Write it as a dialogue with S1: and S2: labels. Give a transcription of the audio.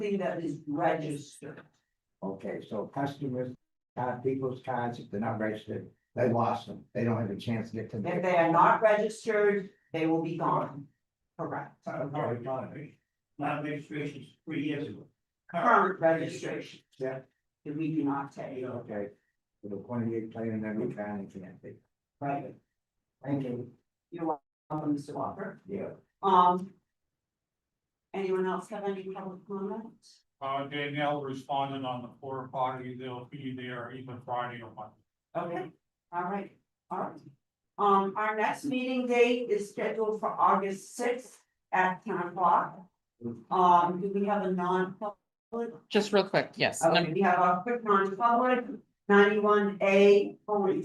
S1: thing that is registered.
S2: Okay, so customers, uh, people's cards, if they're not registered, they lost them, they don't have a chance to get to.
S1: If they are not registered, they will be gone. Correct.
S2: Okay, fine.
S3: My registration's three years ago.
S1: Current registration.
S2: Yeah.
S1: That we do not take.
S2: okay, with a twenty-eight player in every town in Connecticut,
S1: Right.
S2: thank you,
S1: You're welcome, Mr. Walker.
S2: yeah.
S1: Um. Anyone else have any public comments?
S3: Uh, Danielle responded on the four o'clock, they'll be there either Friday or Monday.
S1: Okay, all right, all right. Um, our next meeting date is scheduled for August sixth at ten o'clock. Um, do we have a non-public? Oh, Uh,
S4: Just real quick, yes,
S1: Okay, we have a quick non-public, ninety-one A, only